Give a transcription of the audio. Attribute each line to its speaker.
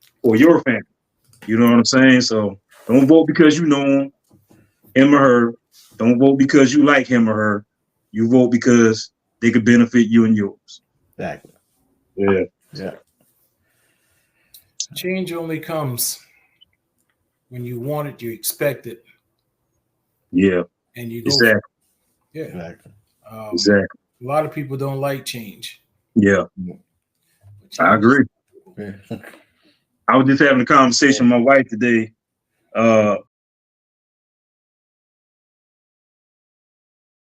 Speaker 1: or your family. You know what I'm saying? So don't vote because you know him, him or her. Don't vote because you like him or her. You vote because they could benefit you and yours.
Speaker 2: Exactly.
Speaker 1: Yeah.
Speaker 2: Yeah.
Speaker 3: Change only comes when you want it, you expect it,
Speaker 1: Yeah.
Speaker 3: and you go. for it.
Speaker 1: Exactly.
Speaker 3: Yeah.
Speaker 2: Exactly.
Speaker 3: Um,
Speaker 1: Exactly.
Speaker 3: A lot of people don't like change.
Speaker 1: Yeah.
Speaker 3: but
Speaker 1: I
Speaker 3: change-
Speaker 1: agree.
Speaker 2: Yeah.
Speaker 1: I was just having a conversation with my wife today. Uh,